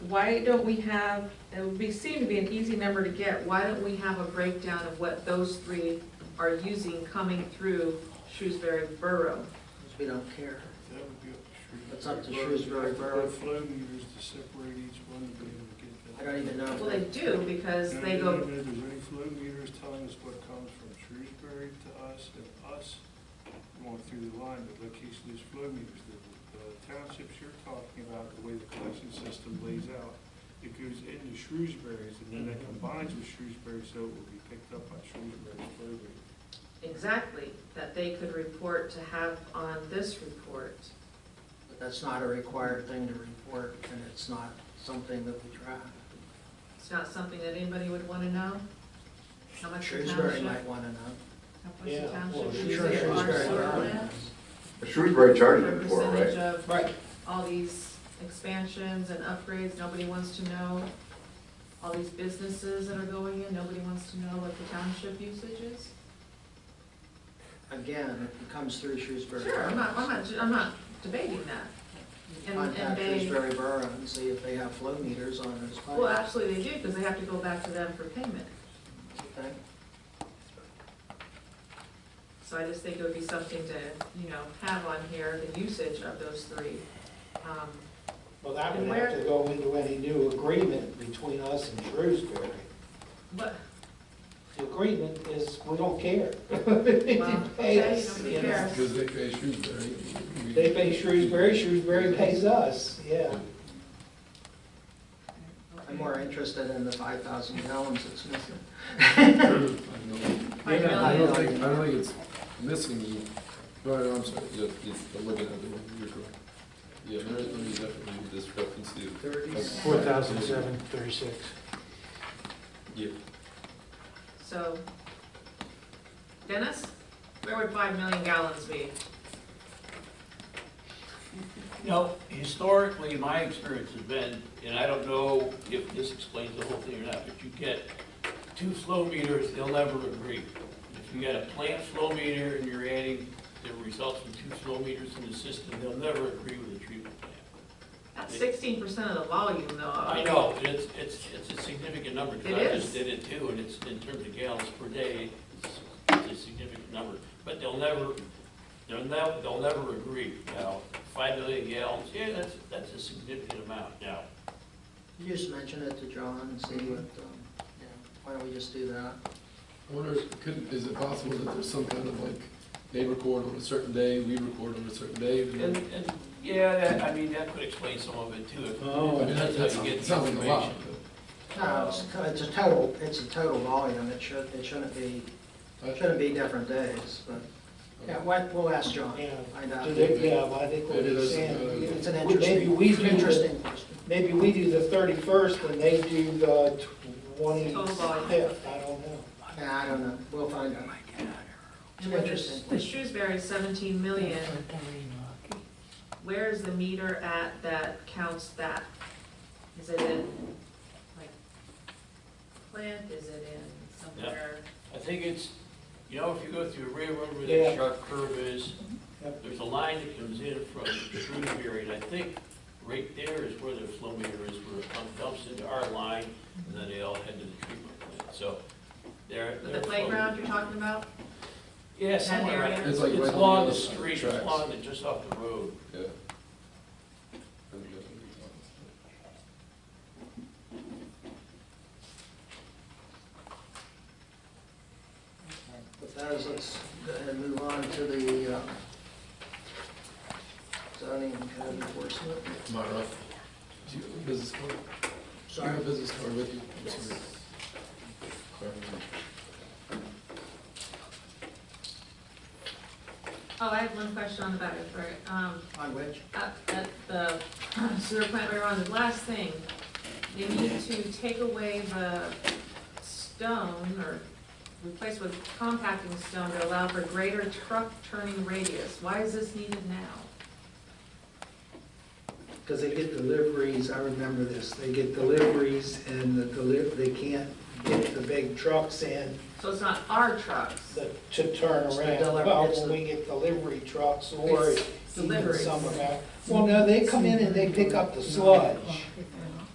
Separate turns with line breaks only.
why don't we have, it would be, seem to be an easy number to get, why don't we have a breakdown of what those three are using coming through Shrewsbury Borough?
We don't care.
That would be up to Shrewsbury.
That's up to
Borough.
Shrewsbury Borough.
They have flow meters to separate each one to be able to get that.
I don't even know.
Well, they do, because
And
they
I
go,
don't even know if there's any flow meters telling us what comes from Shrewsbury to us and us going through the line, but location is flow meters. The the townships you're talking about, the way the collection system lays out, it goes into Shrewsbury's and then it combines with Shrewsbury, so it will be picked up by Shrewsbury's flow meter.
exactly, that they could report to have on this report.
But that's not a required thing to report, and it's not something that we track.
It's not something that anybody would want to know? How much the
Shrewsbury
township, how
might want to know.
much the
Yeah, well,
township uses
Sure,
Shrewsbury
our
Shrewsbury
sewer
Borough
plant?
knows.
Shrewsbury charged
What
them for, it,
percentage
right?
of
Right.
all these expansions and upgrades, nobody wants to know. All these businesses that are going in, nobody wants to know what the township usage is.
Again, it comes through Shrewsbury.
Sure, I'm not, I'm not, I'm not debating that. And, and
Contact
they,
Shrewsbury Borough and see if they have flow meters on those
well,
pipes.
actually they do, because they have to go back to them for payment.
Okay?
So I just think it would be something to, you know, have on here, the usage of those three. Um,
Well, that would
And
have to go into any new agreement between us and Shrewsbury.
But,
The agreement is, we don't care.
well,
They pay
okay,
us,
nobody
you know.
cares.
Because they pay Shrewsbury.
They pay Shrewsbury, Shrewsbury pays us, yeah.
I'm more interested in the five thousand gallons that's missing.
I
Five
don't- I don't
million.
think, I don't think it's missing, no, no, I'm sorry, yeah, it's, I'm looking at the one, you're correct. Yeah, there is there is definitely a discrepancy.
Thirty-six.
Four thousand
seven thirty-six.
Yeah,
So, Dennis, where would five million gallons be?
You know, historically, my experience has been, and I don't know if this explains the whole thing or not, but you get two flow meters, they'll never agree. If you got a plant flow meter and you're adding the results from two flow meters in the system, they'll never agree with the treatment plant.
That's sixteen percent of the volume though.
I know, and it's, it's, it's a significant number,
It
because I
is.
just did it too, and it's, in terms of gallons per day, it's- it's a significant number. But they'll never, they'll never, they'll never agree. Now, five million gallons, yeah, that's, that's a significant amount now.
You just mention it to John and see what, um, yeah, why don't we just do that?
I wonder, if- could, is it possible that there's some kind of like, they record on a certain day, we record on a certain day, and
And,
then.
and, yeah, that, I mean, that could explain some of it too. if-
Oh.
I mean, that- that
That's how you
sounds
get the
sounds like a lot.
information.
No, it's, it's a total, it's a total volume, it should, it shouldn't be,
but I-
shouldn't be different days, but, yeah, why- we'll ask John,
Yeah,
find out.
Do they- yeah, well, I think what you're
uh,
saying.
It's an
we- Maybe
interesting,
we
it's
do,
an
the-
interesting question.
maybe we do the thirty-first and they do the
Total volume.
twenty-fifth, I don't know.
Yeah, I don't know, we'll find out. It's
And
an
with
interesting
the- the
question.
Shrewsbury is seventeen million, where is the meter at that counts that? Is it in, like, plant, is it in somewhere?
I think it's, you know, if you go through a railroad where
Yeah.
that sharp curve is,
Yep.
there's a line that comes in from Shrewsbury, and I think right there is where the flow meter is, where it pump dumps into our line, and then they all head to the treatment plant, so they're.
The playground you're talking about?
Yeah, somewhere
area?
around.
It's like right on
It's
the
along
other
the
side of the
street,
tracks.
it's along the, just off the road.
Yeah. I think that's what we're talking about.
With that is, let's go ahead and move on to the uh, zoning and code enforcement.
Not enough. Do you have a business card? Do you
Sorry,
have a business card with you? I'm sorry. Sorry.
Oh, I have one question on the back, sorry, um,
on which?
at, at the sewer plant we were on, the last thing, they need to take away the stone or replace with compacting stone to allow for greater truck turning radius. Why is this needed now?
Because they get deliveries, I remember this, they get deliveries and the deliv, they can't get the big
Trucks in
So it's not our trucks,
the- to turn
It's the
around.
deli-
Well,
it's
when
the-
we get delivery trucks or
It's
even
deliveries.
some of that. Well, no, they come in and they pick up the sludge.